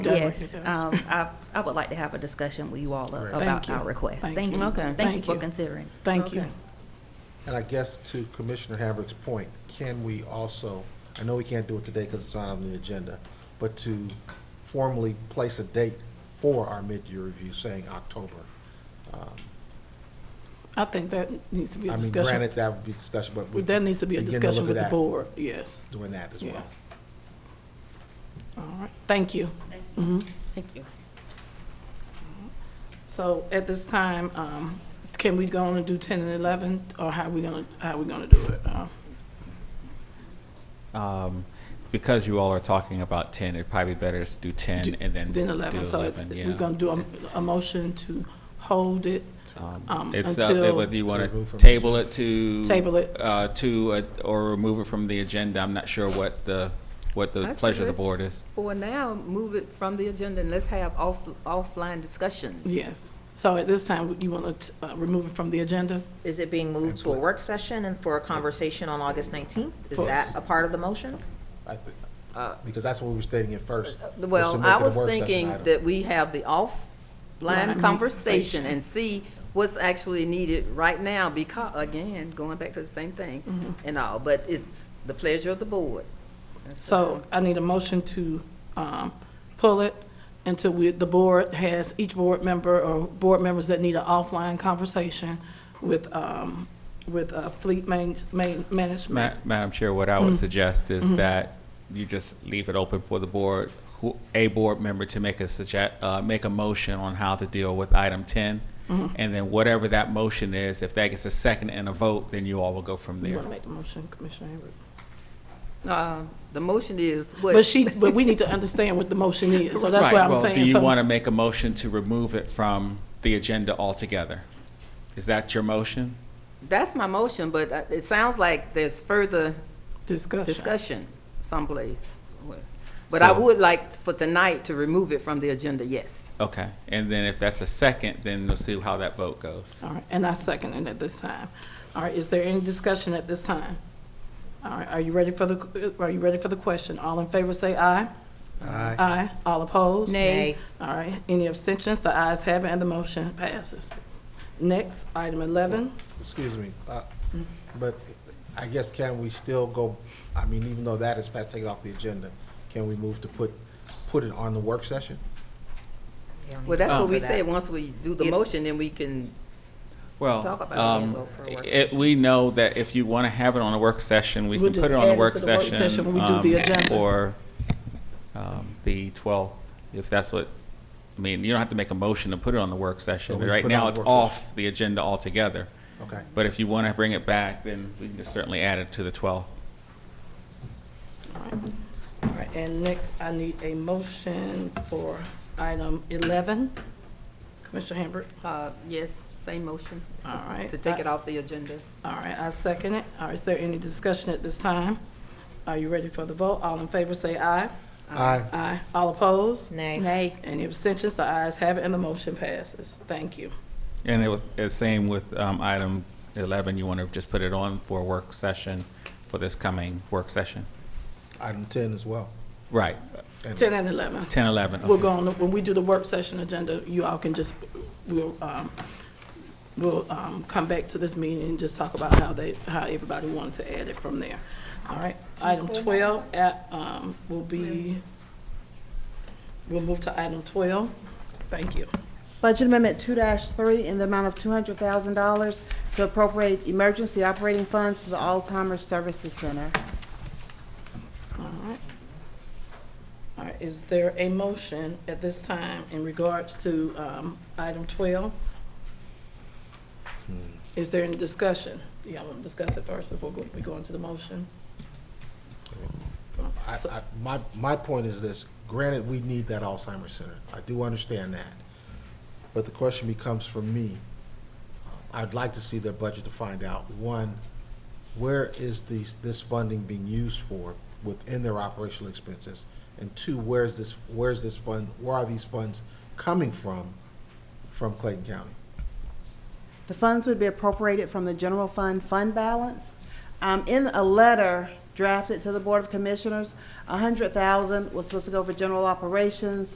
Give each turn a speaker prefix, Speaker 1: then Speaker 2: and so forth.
Speaker 1: Done with
Speaker 2: Yes,
Speaker 1: it, guys.
Speaker 2: um, I, I would like to have a discussion with you all a-
Speaker 3: Right.
Speaker 2: about
Speaker 1: Thank you.
Speaker 2: our request.
Speaker 1: Thank
Speaker 2: Thank
Speaker 1: you.
Speaker 2: you.
Speaker 4: Okay.
Speaker 2: Thank you
Speaker 1: Thank
Speaker 2: for
Speaker 1: you.
Speaker 2: considering.
Speaker 1: Thank you.
Speaker 4: Okay.
Speaker 3: And I guess to Commissioner Havertz's point, can we also, I know we can't do it today because it's not on the agenda, but to formally place a date for our mid-year review, saying October. Um,
Speaker 1: I think that needs to be a
Speaker 3: I mean,
Speaker 1: discussion.
Speaker 3: granted, that would be discussion, but we
Speaker 1: There needs to be a
Speaker 3: begin to
Speaker 1: discussion
Speaker 3: look
Speaker 1: with
Speaker 3: at
Speaker 1: the
Speaker 3: that.
Speaker 1: board, yes.
Speaker 3: doing that as
Speaker 1: Yeah.
Speaker 3: well.
Speaker 1: All right, thank you.
Speaker 4: Thank you.
Speaker 1: So at this time, um, can we go on and do ten and eleven, or how we gonna, how we gonna do it? Uh,
Speaker 5: Um, because you all are talking about ten, it'd probably be better to do ten and then
Speaker 1: Then
Speaker 5: do
Speaker 1: eleven, so it- we're
Speaker 5: yeah.
Speaker 1: gonna do a, a motion to hold it,
Speaker 5: Um,
Speaker 1: um,
Speaker 5: It's
Speaker 1: until-
Speaker 5: up, whether you want
Speaker 3: remove
Speaker 5: to
Speaker 3: from the
Speaker 5: table it to.
Speaker 1: Table it.
Speaker 5: Uh, to, uh, or remove it from the agenda. I'm not sure what the, what
Speaker 4: I
Speaker 5: the
Speaker 4: think
Speaker 5: pleasure of the
Speaker 4: let's-
Speaker 5: board is.
Speaker 4: For now, move it from the agenda and let's have off, offline discussions.
Speaker 1: yes. So at this time, you wanna, t- uh, remove it from the agenda?
Speaker 6: Is it being moved to a work session and for a conversation on August 19th? Is that a part of the motion?
Speaker 3: I thi- Because that's what we were stating at first. was to
Speaker 4: Uh, Well,
Speaker 3: make
Speaker 4: I
Speaker 3: it a
Speaker 4: was
Speaker 3: work session
Speaker 4: thinking
Speaker 3: item.
Speaker 4: that we have the offline
Speaker 1: Line
Speaker 4: conversation
Speaker 1: conversation.
Speaker 4: and see what's actually needed right now because, again, going back to the same thing
Speaker 1: Mm-hmm.
Speaker 4: and all, but it's the pleasure of the board.
Speaker 1: So I need a motion to um, pull it until we, the board has, each board member or board members that need an offline conversation with, um, with uh, fleet man- man-
Speaker 5: Ma-
Speaker 1: management.
Speaker 5: Madam Chair, what I
Speaker 1: Mm-hmm.
Speaker 5: would suggest is that you just leave it open for the board, who, a board member to make a suggest, uh, make a motion on how to deal with item ten.
Speaker 1: Mm-hmm.
Speaker 5: And then whatever that motion is, if that gets a second and a vote, then you all will go from
Speaker 1: You
Speaker 5: there.
Speaker 1: want to make the motion, Commissioner Avery?
Speaker 4: Uh, The motion is what?
Speaker 1: But she, but we need to understand what the motion is, so that's
Speaker 5: Right,
Speaker 1: what I'm
Speaker 5: well,
Speaker 1: saying.
Speaker 5: Do you
Speaker 1: So-
Speaker 5: want to make a motion to remove it from the agenda altogether? Is that your motion?
Speaker 4: That's my motion, but uh, it sounds like there's further
Speaker 1: Discussion.
Speaker 4: discussion someplace. But I
Speaker 5: So-
Speaker 4: would like for tonight to remove it from the agenda, yes.
Speaker 5: Okay, and then if that's a second, then we'll see how that vote goes.
Speaker 1: All right, and I second it at this time. All right, is there any discussion at this time? All right, are you ready for the, are you ready for the question? All in favor, say aye.
Speaker 3: Aye.
Speaker 1: Aye. All opposed?
Speaker 6: Nay.
Speaker 1: All right, any abstentions? The ayes have it, and the motion passes. Next, item 11.
Speaker 3: Excuse me, uh,
Speaker 4: Mm-hmm.
Speaker 3: but I guess can we still go, I mean, even though that is past, take it off the agenda, can we move to put, put it on the work session?
Speaker 4: Well,
Speaker 1: Oh.
Speaker 4: that's what
Speaker 6: Um,
Speaker 4: we
Speaker 6: for
Speaker 4: said,
Speaker 6: that.
Speaker 4: once we do the
Speaker 6: Yeah.
Speaker 4: motion, then we can,
Speaker 5: Well,
Speaker 4: Talk about it and
Speaker 5: um,
Speaker 4: vote for a work
Speaker 5: it, we know that if you want to have it on a work session, we
Speaker 1: We'll
Speaker 5: can put
Speaker 1: just
Speaker 5: it on
Speaker 1: add
Speaker 5: the
Speaker 1: it
Speaker 5: work
Speaker 1: to the work session when
Speaker 5: session,
Speaker 1: we do the
Speaker 5: um,
Speaker 1: agenda.
Speaker 5: for, um, the twelfth, if that's what, I mean, you don't have to make a motion to put it on the work session.
Speaker 3: we
Speaker 5: Right
Speaker 3: put it on
Speaker 5: now,
Speaker 3: the
Speaker 5: it's
Speaker 3: work session.
Speaker 5: off the agenda altogether.
Speaker 3: Okay,
Speaker 5: But if you want to bring it back, then we can just certainly add it to the 12th.
Speaker 1: All right. All right, and next, I need a motion for item 11. Commissioner Hamburg?
Speaker 4: uh, yes, same motion,
Speaker 1: All right. Uh,
Speaker 4: to take it off the agenda.
Speaker 1: All right, I second it. All right, is there any discussion at this time? Are you ready for the vote? All in favor, say aye.
Speaker 3: aye,
Speaker 1: Aye. All opposed?
Speaker 6: Nay.
Speaker 2: Nay.
Speaker 1: Any abstentions? The ayes have it, and the motion passes. Thank you.
Speaker 5: And it was, it's same with um, item 11, you want to just put it on for a work session, for this coming work session?
Speaker 3: item ten as well.
Speaker 5: Right,
Speaker 1: 10 and 11.
Speaker 5: 10, 11.
Speaker 1: We'll
Speaker 5: okay.
Speaker 1: go on, when we do the work session agenda, you all can just, we'll, um, we'll, um, come back to this meeting and just talk about how they, how everybody wanted to add it from there. All right, item twelve, at, um, will be, we'll move to item twelve. Thank you.
Speaker 7: Budget Amendment two three in the amount of two hundred thousand dollars to appropriate emergency operating funds to the Alzheimer's Services Center.
Speaker 1: All right. All right, is there a motion at this time in regards to, um, item twelve? Is there any discussion? Yeah, we'll discuss it first before go- we go into the motion.
Speaker 3: I, I, my, my point is this, granted, we need that Alzheimer's Center, I do understand that. But the question becomes for me, uh, I'd like to see their budget to find out, one, where is these, this funding being used for within their operational expenses? And two, where's this, where's this fund, where are these funds coming from, from Clayton County?
Speaker 7: The funds would be appropriated from the general fund fund balance. Um, in a letter drafted to the Board of Commissioners, a hundred thousand was supposed to go for general operations,